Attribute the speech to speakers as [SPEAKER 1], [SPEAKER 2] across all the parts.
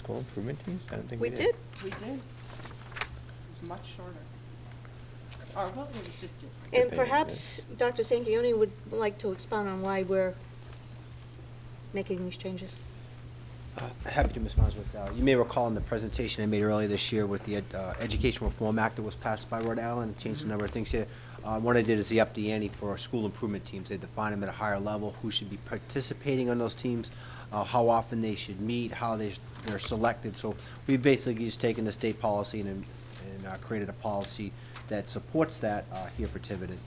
[SPEAKER 1] capital improvement teams? I don't think we
[SPEAKER 2] We
[SPEAKER 1] did.
[SPEAKER 2] did.
[SPEAKER 3] We did. It's much shorter. Our vote was just different.
[SPEAKER 1] Good
[SPEAKER 2] And
[SPEAKER 1] thing it
[SPEAKER 2] perhaps
[SPEAKER 1] exists.
[SPEAKER 2] Dr. Sanquioni would like to expound on why we're making these changes.
[SPEAKER 4] Uh, Happy to, Ms. Bosworth. Uh, You may recall in the presentation I made earlier this year with the Ed- uh, Education Reform Act that was passed by Rhode Island, it changed a number of things here. Uh, One I did is the up the ante for our school improvement teams. They define them at a higher level, who should be participating on those teams, uh, how often they should meet, how they, sh- they're selected. So we've basically just taken the state policy and and, uh, created a policy that supports that uh, here for Tiverton.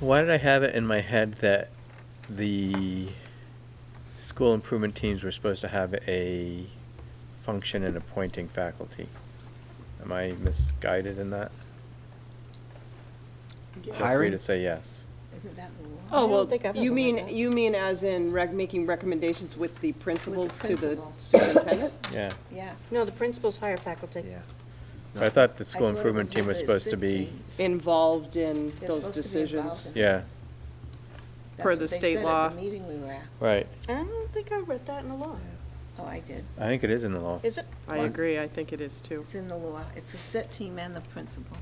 [SPEAKER 1] Why did I have it in my head that the school improvement teams were supposed to have a function in appointing faculty? Am I misguided in that? Feel free
[SPEAKER 4] Hiring?
[SPEAKER 1] to say yes.
[SPEAKER 5] Isn't that the law?
[SPEAKER 2] I
[SPEAKER 6] Oh,
[SPEAKER 2] don't
[SPEAKER 6] well,
[SPEAKER 2] think I've
[SPEAKER 6] you
[SPEAKER 2] ever
[SPEAKER 6] mean,
[SPEAKER 2] read that.
[SPEAKER 6] you mean as in rec, making recommendations with the principals to the
[SPEAKER 5] principal.
[SPEAKER 6] superintendent?
[SPEAKER 1] Yeah.
[SPEAKER 5] Yeah.
[SPEAKER 2] No, the principals hire faculty.
[SPEAKER 4] Yeah.
[SPEAKER 1] But I thought the
[SPEAKER 5] I
[SPEAKER 1] school
[SPEAKER 5] thought it
[SPEAKER 1] improvement team
[SPEAKER 5] with
[SPEAKER 1] was
[SPEAKER 5] the
[SPEAKER 1] supposed to
[SPEAKER 5] SID
[SPEAKER 1] be,
[SPEAKER 5] team.
[SPEAKER 6] Involved in
[SPEAKER 5] They're
[SPEAKER 6] those
[SPEAKER 5] supposed to be involved
[SPEAKER 6] decisions?
[SPEAKER 5] in it.
[SPEAKER 1] yeah,
[SPEAKER 5] That's
[SPEAKER 6] Per
[SPEAKER 5] what
[SPEAKER 6] the
[SPEAKER 5] they
[SPEAKER 6] state
[SPEAKER 5] said at
[SPEAKER 6] law.
[SPEAKER 5] the meeting we were at.
[SPEAKER 1] right.
[SPEAKER 2] I don't think I read that in the law.
[SPEAKER 5] Oh, I did.
[SPEAKER 1] I think it is in the law.
[SPEAKER 2] Is it?
[SPEAKER 6] I agree, I think it is too.
[SPEAKER 5] It's in the law. It's the set team and the principal.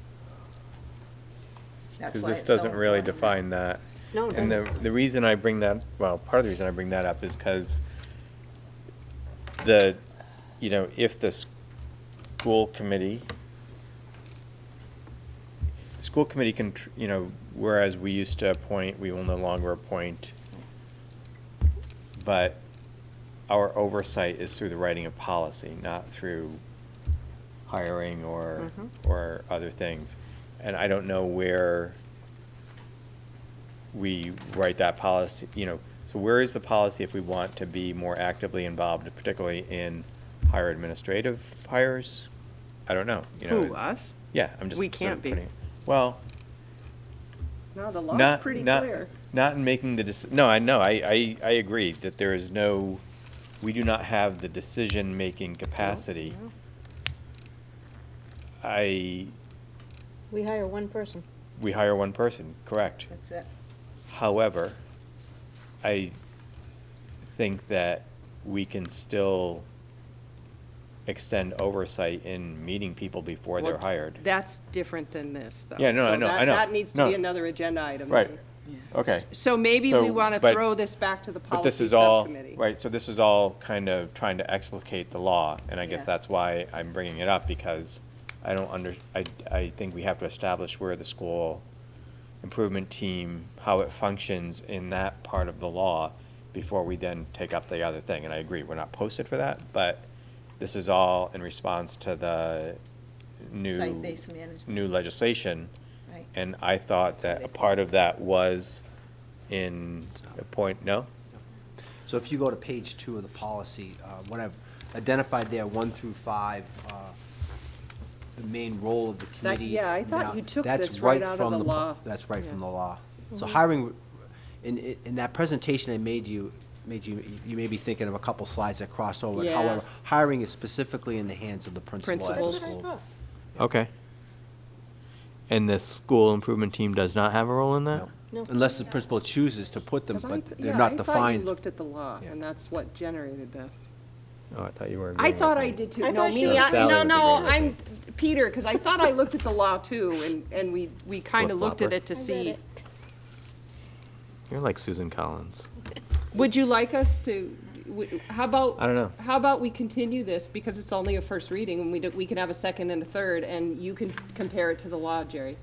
[SPEAKER 5] That's
[SPEAKER 1] Because
[SPEAKER 5] why
[SPEAKER 1] this
[SPEAKER 5] it's so
[SPEAKER 1] doesn't really
[SPEAKER 5] important.
[SPEAKER 1] define that.
[SPEAKER 2] No,
[SPEAKER 1] And
[SPEAKER 2] no.
[SPEAKER 1] the, the reason I bring that, well, part of the reason I bring that up is because the, you know, if the school committee, school committee can, tr- you know, whereas we used to appoint, we will no longer appoint, but our oversight is through the writing of policy, not through hiring or,
[SPEAKER 2] Mhm.
[SPEAKER 6] Mm-hmm.
[SPEAKER 1] or other things. And I don't know where we write that policy, you know, so where is the policy if we want to be more actively involved, particularly in higher administrative hires? I don't know, you know.
[SPEAKER 6] Who, us?
[SPEAKER 1] Yeah, I'm just.
[SPEAKER 6] We
[SPEAKER 1] sort of
[SPEAKER 6] can't be.
[SPEAKER 1] putting- Well,
[SPEAKER 6] No, the
[SPEAKER 1] not, not, not in making the, deci- no, I know, I, I, I agree that there is no, we do not have the decision-making capacity.
[SPEAKER 2] no.
[SPEAKER 1] I,
[SPEAKER 2] We hire one person.
[SPEAKER 1] we hire one person, correct.
[SPEAKER 5] That's it.
[SPEAKER 1] However, I think that we can still extend oversight in meeting people before they're
[SPEAKER 6] Well,
[SPEAKER 1] hired.
[SPEAKER 6] That's different than this, though.
[SPEAKER 1] Yeah, no, I
[SPEAKER 6] So
[SPEAKER 1] know, I
[SPEAKER 6] that-
[SPEAKER 1] know.
[SPEAKER 6] That needs to
[SPEAKER 1] No.
[SPEAKER 6] be another agenda item.
[SPEAKER 1] Right.
[SPEAKER 6] then.
[SPEAKER 1] Okay.
[SPEAKER 6] S- So maybe we
[SPEAKER 1] So,
[SPEAKER 6] want to
[SPEAKER 1] but-
[SPEAKER 6] throw this back to the
[SPEAKER 1] But this
[SPEAKER 6] policy
[SPEAKER 1] is all,
[SPEAKER 6] subcommittee.
[SPEAKER 1] right, so this is all kind of trying to explicate the law, and I guess
[SPEAKER 5] Yeah.
[SPEAKER 1] that's why I'm bringing it up, because I don't under, I, I think we have to establish where the school improvement team, how it functions in that part of the law, before we then take up the other thing, and I agree, we're not posted for that, but this is all in response to the new.
[SPEAKER 5] Site-based management.
[SPEAKER 1] New legislation.
[SPEAKER 5] Right.
[SPEAKER 1] And I thought that a part of that was in a point, no?
[SPEAKER 4] So if you go to page two of the policy, uh, what I've identified there, one through five, uh, the main role of the
[SPEAKER 6] That-
[SPEAKER 4] committee.
[SPEAKER 6] yeah, I thought
[SPEAKER 4] now,
[SPEAKER 6] you took
[SPEAKER 4] that's
[SPEAKER 6] this right out of
[SPEAKER 4] from
[SPEAKER 6] the
[SPEAKER 4] po-
[SPEAKER 6] law.
[SPEAKER 4] That's right from
[SPEAKER 6] Yeah. Mm-hmm.
[SPEAKER 4] the law. So hiring, in, in- in that presentation I made you, made you, you may be thinking of a couple slides that cross over.
[SPEAKER 6] Yeah.
[SPEAKER 4] However, hiring is specifically in the hands of the principal. at the
[SPEAKER 6] Principals.
[SPEAKER 2] That's what I
[SPEAKER 4] school.
[SPEAKER 2] thought.
[SPEAKER 1] Okay. And the school improvement team does not have a role in that?
[SPEAKER 4] No.
[SPEAKER 2] No.
[SPEAKER 4] Unless the principal chooses to put them,
[SPEAKER 6] 'Cause I-
[SPEAKER 4] but
[SPEAKER 6] yeah,
[SPEAKER 4] they're not
[SPEAKER 6] I
[SPEAKER 4] defined.
[SPEAKER 6] thought you looked at the law,
[SPEAKER 4] Yeah.
[SPEAKER 6] and that's what generated this.
[SPEAKER 1] Oh, I thought you were.
[SPEAKER 6] I thought I did too.
[SPEAKER 2] I
[SPEAKER 6] No,
[SPEAKER 2] thought she
[SPEAKER 6] me,
[SPEAKER 2] was-
[SPEAKER 6] I-
[SPEAKER 1] Sally
[SPEAKER 6] no,
[SPEAKER 1] was
[SPEAKER 6] no,
[SPEAKER 1] agreeing with
[SPEAKER 6] I'm Peter, because I thought I looked at the law too, and, and we, we kind of looked at
[SPEAKER 1] Flip-flopper.
[SPEAKER 6] it to
[SPEAKER 2] I read
[SPEAKER 6] see.
[SPEAKER 2] it.
[SPEAKER 1] You're like Susan Collins.
[SPEAKER 6] Would you like us to, w- how about?
[SPEAKER 1] I don't know.
[SPEAKER 6] How about we continue this, because it's only a first reading, and we, do- we can have a second and a third, and you can compare it to the law, Jerry,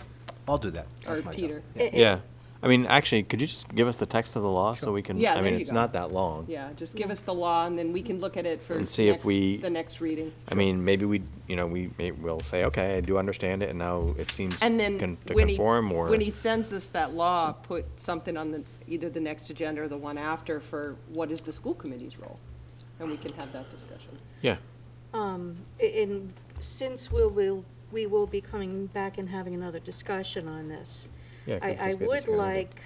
[SPEAKER 4] I'll do that.
[SPEAKER 6] or
[SPEAKER 4] That's my job.
[SPEAKER 6] Peter.
[SPEAKER 2] Eh, eh,
[SPEAKER 1] Yeah. I mean, actually, could you just give us the text of the law so we can,
[SPEAKER 6] Yeah,
[SPEAKER 1] I
[SPEAKER 6] there
[SPEAKER 1] mean,
[SPEAKER 6] you
[SPEAKER 1] it's
[SPEAKER 6] go.
[SPEAKER 1] not that long.
[SPEAKER 6] Yeah, just give us the law, and then we can look at it for
[SPEAKER 1] And see if
[SPEAKER 6] next-
[SPEAKER 1] we-
[SPEAKER 6] the next reading.
[SPEAKER 1] I mean, maybe we, you know, we may, we'll say, okay, I do understand it, and now it seems
[SPEAKER 6] And then
[SPEAKER 1] con- to
[SPEAKER 6] when he,
[SPEAKER 1] conform or.
[SPEAKER 6] when he sends us that law, put something on the, either the next agenda or the one after for what is the school committee's role? And we can have that discussion.
[SPEAKER 1] Yeah.
[SPEAKER 2] Um, a- and since we'll, we'll, we will be coming back and having another discussion on this,
[SPEAKER 1] Yeah, it could
[SPEAKER 2] I, I
[SPEAKER 1] just be a
[SPEAKER 2] would
[SPEAKER 1] discussion.
[SPEAKER 2] like,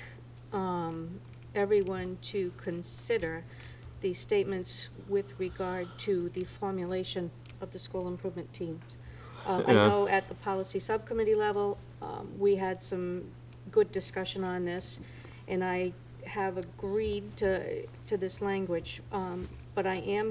[SPEAKER 2] um, everyone to consider the statements with regard to the formulation of the school improvement teams. Uh, I
[SPEAKER 1] Yeah.
[SPEAKER 2] know at the policy subcommittee level, um, we had some good discussion on this, and I have agreed to, to this language. Um, but I am